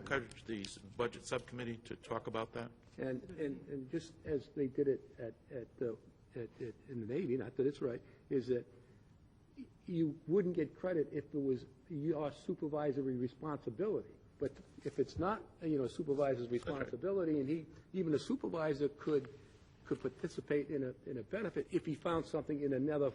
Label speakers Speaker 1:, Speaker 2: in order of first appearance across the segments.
Speaker 1: encourage the s- budget subcommittee to talk about that?
Speaker 2: And, and, and just as they did it at, at, the- at, at, in the Navy, not that it's right, is that y- you wouldn't get credit if it was your supervisory responsibility. But if it's not, you know, supervisor's responsibility, and he, even a supervisor could, could participate in a, in a benefit if he found something in another,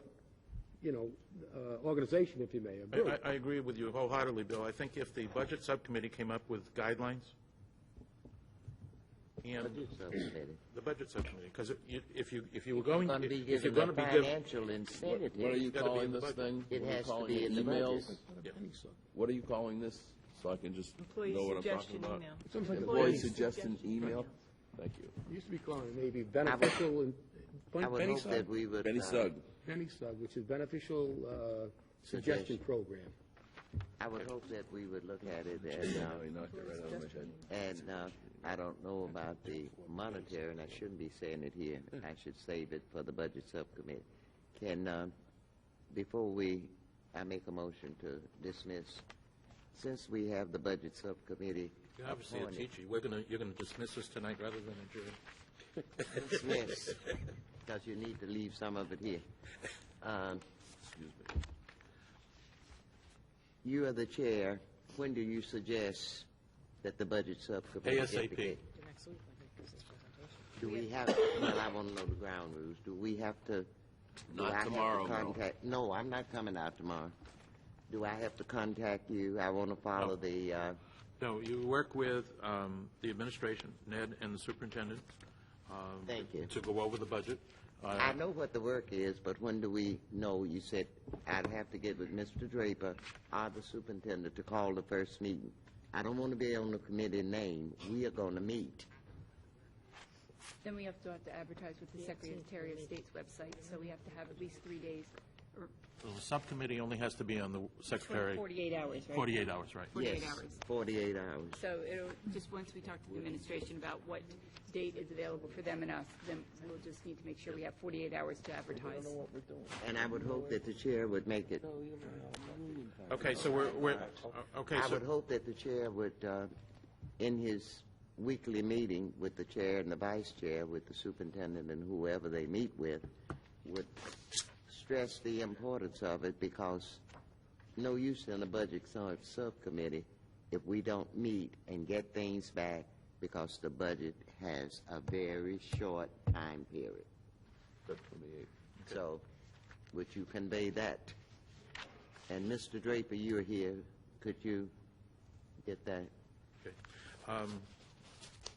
Speaker 2: you know, uh, organization, if you may, or
Speaker 1: I-
Speaker 2: group.
Speaker 1: I, I agree with you wholeheartedly, Bill. I think if the budget subcommittee came up with guidelines, and the budget subcommittee, because if you, if you were going,
Speaker 3: Going to be
Speaker 1: if you're
Speaker 3: given
Speaker 1: going
Speaker 3: a
Speaker 1: to be given,
Speaker 3: financial incentive.
Speaker 4: What are you
Speaker 1: gotta be in
Speaker 4: calling
Speaker 1: the
Speaker 4: this
Speaker 1: budget.
Speaker 4: thing?
Speaker 3: It
Speaker 4: What are you
Speaker 3: has to
Speaker 4: calling
Speaker 3: be
Speaker 4: it?
Speaker 3: in the
Speaker 4: Emails?
Speaker 3: budget.
Speaker 4: What are you calling this, so I can just
Speaker 5: Employee
Speaker 4: know what I'm talking
Speaker 5: suggestion
Speaker 4: about?
Speaker 5: email.
Speaker 2: Sounds like a
Speaker 4: Employee
Speaker 2: Employee
Speaker 4: suggestion email? Thank you.
Speaker 2: It used to be called maybe beneficial and,
Speaker 3: I would
Speaker 2: penny
Speaker 3: hope
Speaker 2: stock.
Speaker 3: that we would.
Speaker 4: Benny
Speaker 3: uh,
Speaker 4: Sugg,
Speaker 2: Penny Sub, which is beneficial uh, suggestion
Speaker 3: Suggestion.
Speaker 2: program.
Speaker 3: I would hope that we would look at it and,
Speaker 4: no,
Speaker 3: uh,
Speaker 4: he knocked it right out of my head.
Speaker 3: and, uh, I don't know about the monetary, and I shouldn't be saying it here. I should save it for the budget subcommittee. Can, um, before we, I make a motion to dismiss, since we have the budget subcommittee.
Speaker 1: obviously a
Speaker 3: appointed,
Speaker 1: teacher, we're going to, you're going to dismiss us tonight rather than adjourn.
Speaker 3: Dismiss, because you need to leave some of it here. Um, You are the chair. When do you suggest that the budget subcommittee? get
Speaker 1: ASAP.
Speaker 3: together?
Speaker 5: Next week, I think, is his presentation.
Speaker 3: Do we have, well, I want to know the ground rules. Do we have to? do
Speaker 4: Not
Speaker 3: I have to
Speaker 4: tomorrow, no.
Speaker 3: contact- No, I'm not coming out tomorrow. Do I have to contact you? I want to follow the, uh,
Speaker 1: No, you work with um, the administration, Ned and the superintendent. um,
Speaker 3: Thank you.
Speaker 1: To go over the budget. Uh,
Speaker 3: I know what the work is, but when do we know? You said I'd have to get with Mr. Draper or the superintendent to call the first meeting. I don't want to be on the committee name. We are going to meet.
Speaker 6: Then we have to have to advertise with the Secretary of State's website, so we have to have at least three days, or
Speaker 1: The subcommittee only has to be on the secretary.
Speaker 6: 48 hours, right?
Speaker 1: 48 hours, right.
Speaker 6: 48
Speaker 3: Yes,
Speaker 6: hours.
Speaker 3: Forty-eight hours.
Speaker 6: So it'll, just once we talk to the administration about what date is available for them and us, then we'll just need to make sure we have 48 hours to advertise.
Speaker 3: And I would hope that the chair would make it.
Speaker 1: Okay, so we're, we're, okay,
Speaker 3: I
Speaker 1: so,
Speaker 3: would hope that the chair would, uh, in his weekly meeting with the chair and the vice chair, with the superintendent and whoever they meet with, would stress the importance of it because no use in a budget sub- subcommittee if we don't meet and get things back because the budget has a very short time period. So, would you convey that? And Mr. Draper, you're here, could you get that?
Speaker 1: okay. Um,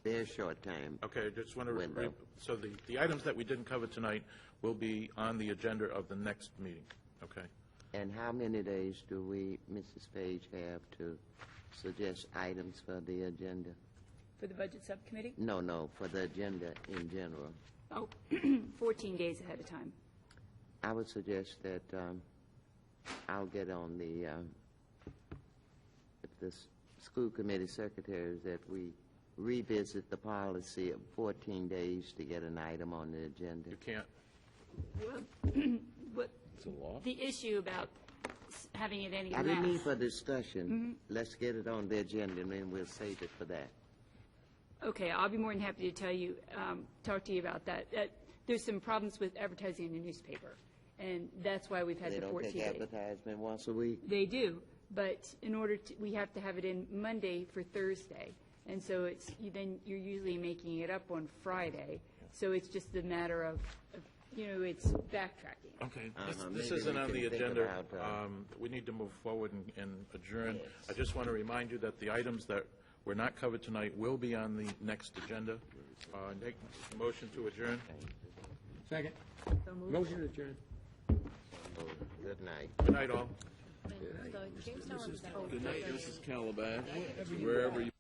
Speaker 3: Very short time.
Speaker 1: okay, I just want to,
Speaker 3: Window.
Speaker 1: so the, the items that we didn't cover tonight will be on the agenda of the next meeting, okay?
Speaker 3: And how many days do we, Mrs. Page, have to suggest items for the agenda?
Speaker 6: For the Budget Subcommittee?
Speaker 3: No, no, for the agenda in general.
Speaker 6: Oh, 14 days ahead of time.
Speaker 3: I would suggest that um, I'll get on the, um, if the s- school committee secretaries, that we revisit the policy of 14 days to get an item on the agenda.
Speaker 1: You can't,
Speaker 6: But
Speaker 4: It's a law.
Speaker 6: the issue about s- having it any
Speaker 3: I didn't mean
Speaker 6: less.
Speaker 3: for discussion. Let's get it on the agenda, and then we'll save it for that.
Speaker 6: Okay, I'll be more than happy to tell you, um, talk to you about that. That- There's some problems with advertising in the newspaper, and that's why we've had
Speaker 3: They
Speaker 6: the
Speaker 3: don't
Speaker 6: 14
Speaker 3: take
Speaker 6: days.
Speaker 3: advertisement once a week.
Speaker 6: They do, but in order to, we have to have it in Monday for Thursday. And so it's, you then you're usually making it up on Friday. So it's just a matter of, of, you know, it's backtracking.
Speaker 1: Okay, this-
Speaker 3: Uh-huh,
Speaker 1: this
Speaker 3: maybe
Speaker 1: isn't
Speaker 3: we
Speaker 1: on
Speaker 3: can
Speaker 1: the
Speaker 3: think
Speaker 1: agenda.
Speaker 3: about, uh,
Speaker 1: Um, We need to move forward and- and adjourn. I just want to remind you that the items that were not covered tonight will be on the next agenda. Uh, Make a motion to adjourn.
Speaker 2: Second. Motion adjourned.
Speaker 3: Oh, Good night.
Speaker 1: Good night, all.
Speaker 4: This is Calabash, wherever you.